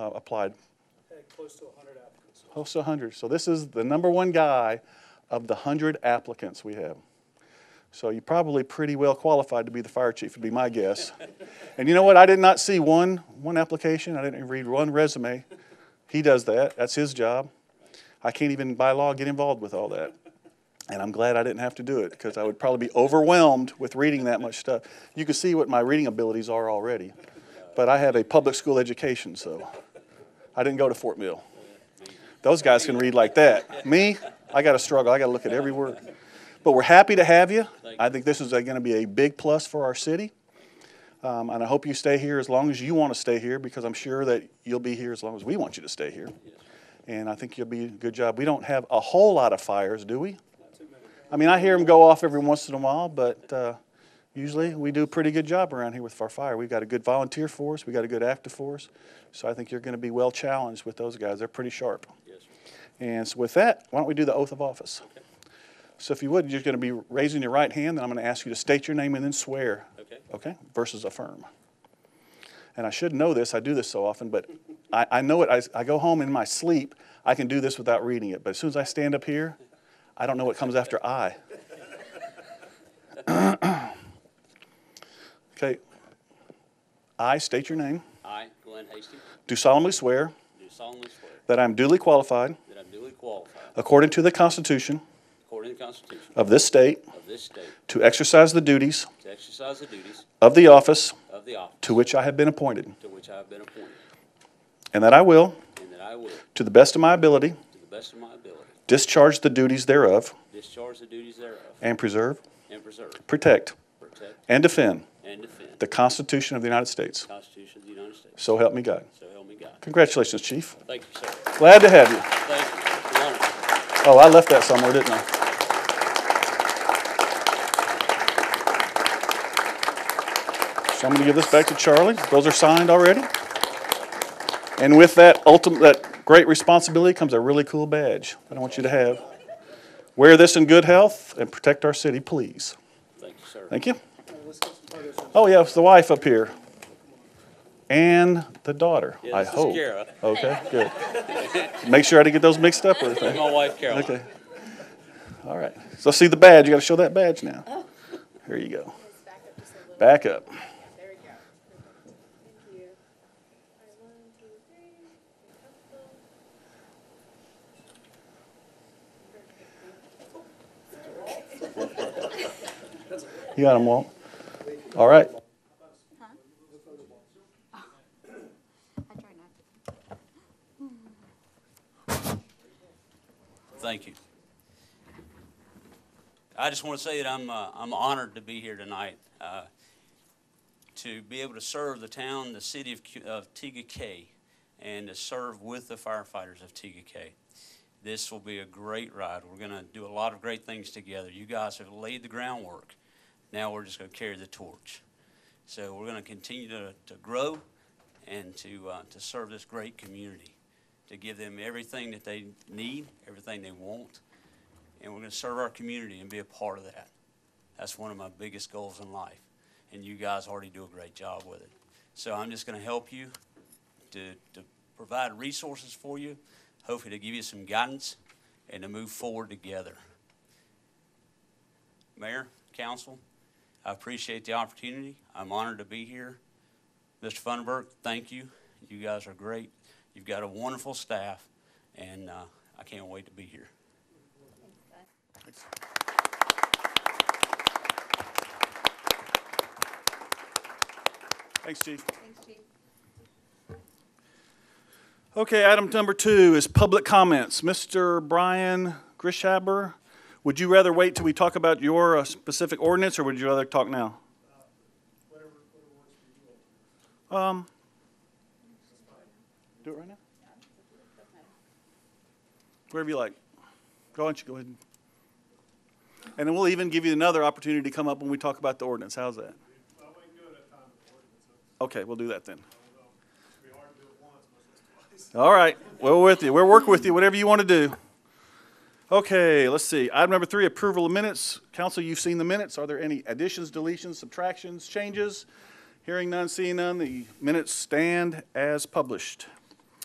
uh, applied. had Uh, close to 100 applicants. Close to 100. So this is the number one guy of the 100 applicants we have. So you're probably pretty well qualified to be the fire chief, would be my guess. and you know what? I did not see one one application. I didn't read one resume. He does that. That's his job. I can't even by law get involved with all that. And I'm glad I didn't have to do it because I would probably be overwhelmed with reading that much stuff. You can see what my reading abilities are already. But I have a public school education, so I didn't go to Fort Mill. Those guys can read like that. Me, I got to struggle. I got to look at every word. But we're happy to have you. I think this is going to be a big plus for our city. Um, and I hope you stay here as long as you want to stay here because I'm sure that you'll be here as long as we want you to stay here. And I think you'll be a good job. We don't have a whole lot of fires, do we? I mean, I hear them go off every once in a while, but uh, usually we do a pretty good job around here with our fire. We've got a good volunteer force, we've got a good active force. So I think you're going to be well challenged with those guys. They're pretty sharp. And so with that, why don't we do the oath of office? So if you would, you're going to be raising your right hand, and I'm going to ask you to state your name and then swear. Okay. Okay, versus affirm. And I should know this, I do this so often, but I, I know it, I, I go home in my sleep, I can do this without reading it, but as soon as I stand up here, I don't know what comes after I. Okay. I state your name, I, Glenn Hastings, do solemnly swear do solemnly swear that I am duly qualified, that I'm duly qualified, according to the Constitution according to the Constitution of this state, of this state, to exercise the duties to exercise the duties of the office of the office to which I have been appointed, to which I have been appointed, and that I will, and that I will, to to the best of my ability, the best of my ability, discharge the duties thereof, discharge the duties thereof, and preserve, and preserve, protect, protect, and defend and defend the the Constitution of the United States. Constitution of the United States. So help me God. So help me God. Congratulations, Chief. Thank you, sir. Glad to have you. Thank you. It's an honor. Oh, I left that somewhere, didn't I? So I'm going to give this back to Charlie. Those are signed already. And with that ultimate, that great responsibility comes a really cool badge that I want you to have. Wear this in good health and protect our city, please. Thank you, sir. Thank you. Let's get some photos. Oh, yeah, it's the wife up here. And the daughter, Yeah, I this is hope. Kara. Okay, good. Make sure I didn't get those mixed up or anything. My wife, Caroline. Okay. All right. So see the badge. You got to show that badge now. Here you go. Just back up Back up. just a little. There we go. Thank you. All right, one, two, three. You got him, Walt. All right. I try not to. Thank you. I just want to say that I'm, uh, I'm honored to be here tonight, uh, to be able to serve the town, the city of, Cu- of TGK, and to serve with the firefighters of TGK. This will be a great ride. We're going to do a lot of great things together. You guys have laid the groundwork. Now we're just going to carry the torch. So we're going to continue to, to grow and to, uh, to serve this great community to give them everything that they need, everything they want, and we're going to serve our community and be a part of that. That's one of my biggest goals in life, and you guys already do a great job with it. So I'm just going to help you to, to provide resources for you, hopefully to give you some guidance, and to move forward together. Mayor, council, I appreciate the opportunity. I'm honored to be here. Mr. Funderburk, thank you. You guys are great. You've got a wonderful staff, and uh, I can't wait to be here. Thanks, Chief. Thanks, Chief. Okay, item number two is public comments. Mr. Brian Grishaber, would you rather wait till we talk about your uh, specific ordinance, or would you rather talk now? Um, do it right now? Wherever you like. Go ahead, you go ahead. And then we'll even give you another opportunity to come up when we talk about the ordinance. How's that? Okay, we'll do that then. All right, we're with you. We're working with you, whatever you want to do. Okay, let's see. Item number three, approval of minutes. Council, you've seen the minutes. Are there any additions, deletions, subtractions, changes? Hearing none, seeing none, the minutes stand as published.